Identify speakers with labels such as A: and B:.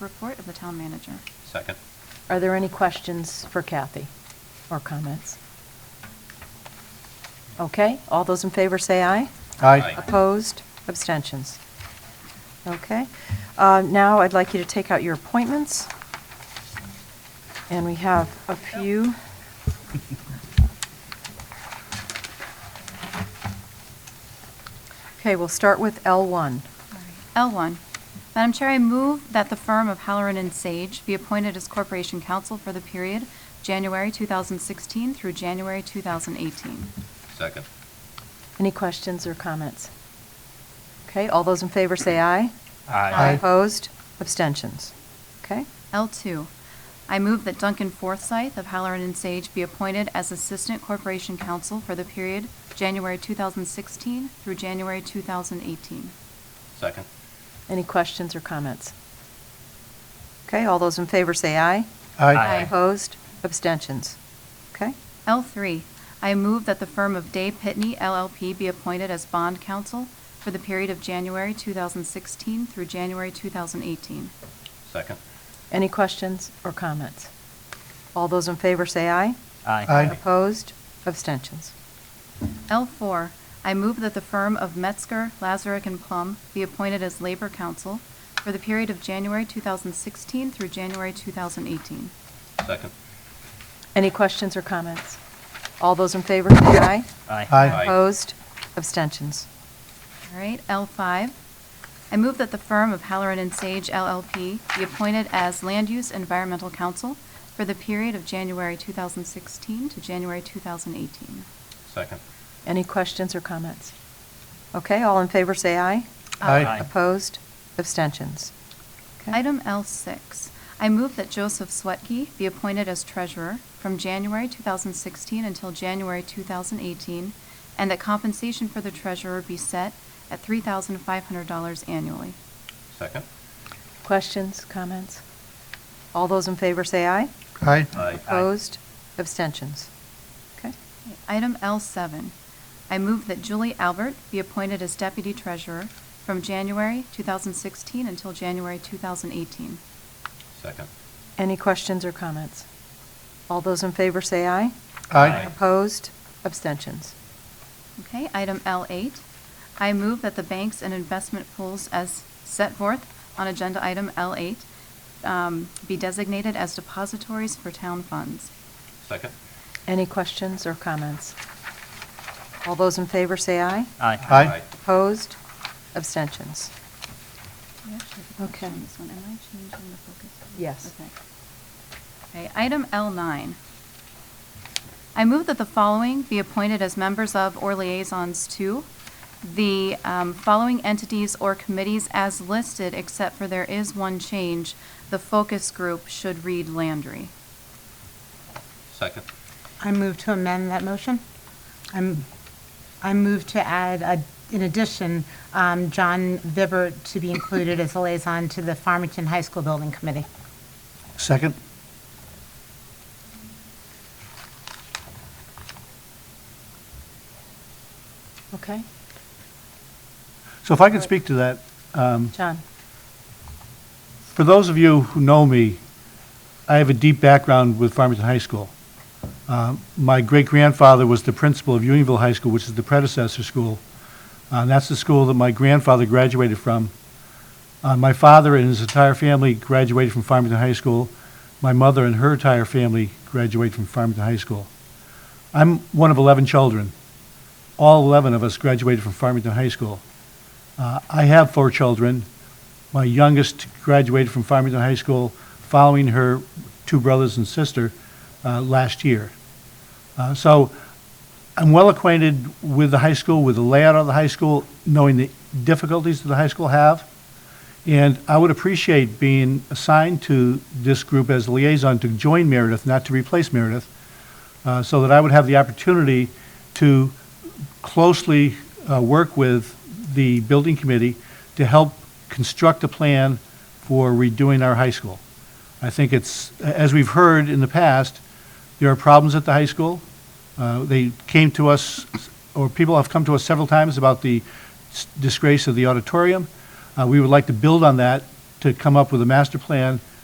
A: Report of the town manager.
B: Second.
C: Are there any questions for Kathy or comments? Okay, all those in favor say aye.
B: Aye.
C: Opposed? Abstentions? Okay. Uh, Now, I'd like you to take out your appointments. And we have a few. Okay, we'll start with L1.
A: L1, Madam Chair, I move that the firm of Halloran and Sage be appointed as Corporation Counsel for the period January 2016 through January 2018.
B: Second.
C: Any questions or comments? Okay, all those in favor say aye.
A: Aye.
C: Opposed? Abstentions? Okay?
A: L2, I move that Duncan Forsythe of Halloran and Sage be appointed as Assistant Corporation Counsel for the period January 2016 through January 2018.
B: Second.
C: Any questions or comments? Okay, all those in favor say aye.
A: Aye.
C: Opposed? Abstentions? Okay?
A: L3, I move that the firm of Day Pitney LLP be appointed as bond counsel for the period of January 2016 through January 2018.
B: Second.
C: Any questions or comments? All those in favor say aye.
D: Aye.
C: Opposed? Abstentions?
A: L4, I move that the firm of Metzger, Lazarick and Plum be appointed as labor counsel for the period of January 2016 through January 2018.
B: Second.
C: Any questions or comments? All those in favor say aye.
B: Aye.
C: Opposed? Abstentions?
A: All right, L5, I move that the firm of Halloran and Sage LLP be appointed as Land Use Environmental Counsel for the period of January 2016 to January 2018.
B: Second.
C: Any questions or comments? Okay, all in favor say aye.
D: Aye.
E: Aye.
C: Opposed? Abstentions? Okay.
A: Item L6, I move that Joseph Swetke be appointed as treasurer from January 2016 until January 2018, and that compensation for the treasurer be set at $3,500 annually.
B: Second.
C: Questions, comments? All those in favor say aye.
D: Aye.
B: Aye.
C: Opposed? Abstentions? Okay.
A: Item L7, I move that Julie Albert be appointed as deputy treasurer from January 2016 until January 2018.
B: Second.
C: Any questions or comments? All those in favor say aye.
B: Aye.
C: Opposed? Abstentions?
A: Okay, item L8, I move that the banks and investment pools as set forth on agenda item L8 um, be designated as depositories for town funds.
B: Second.
C: Any questions or comments? All those in favor say aye.
E: Aye.
D: Aye.
C: Opposed? Abstentions?
A: We actually have a question
C: Okay.
A: on this one. Am I changing the focus?
C: Yes.
A: Okay. Okay, item L9. I move that the following be appointed as members of or liaisons to the um, following entities or committees as listed, except for there is one change. The focus group should read Landry.
B: Second.
F: I move to amend that motion. I'm, I move to add, a- in addition, um, John Vibert to be included as a liaison to the Farmington High School Building Committee.
D: Second.
C: Okay.
D: So if I could speak to that,
C: John?
D: for those of you who know me, I have a deep background with Farmington High School. Uh, My great-grandfather was the principal of Unionville High School, which is the predecessor school. Uh, That's the school that my grandfather graduated from. Uh, My father and his entire family graduated from Farmington High School. My mother and her entire family graduated from Farmington High School. I'm one of 11 children. All 11 of us graduated from Farmington High School. Uh, I have four children. My youngest graduated from Farmington High School following her two brothers and sister uh, last year. Uh, So I'm well acquainted with the high school, with the layout of the high school, knowing the difficulties that the high school have. And I would appreciate being assigned to this group as liaison to join Meredith, not to replace Meredith, uh, so that I would have the opportunity to closely uh, work with the building committee to help construct a plan for redoing our high school. I think it's, as we've heard in the past, there are problems at the high school. Uh, They came to us, or people have come to us several times about the s- disgrace of the auditorium. Uh, We would like to build on that to come up with a master plan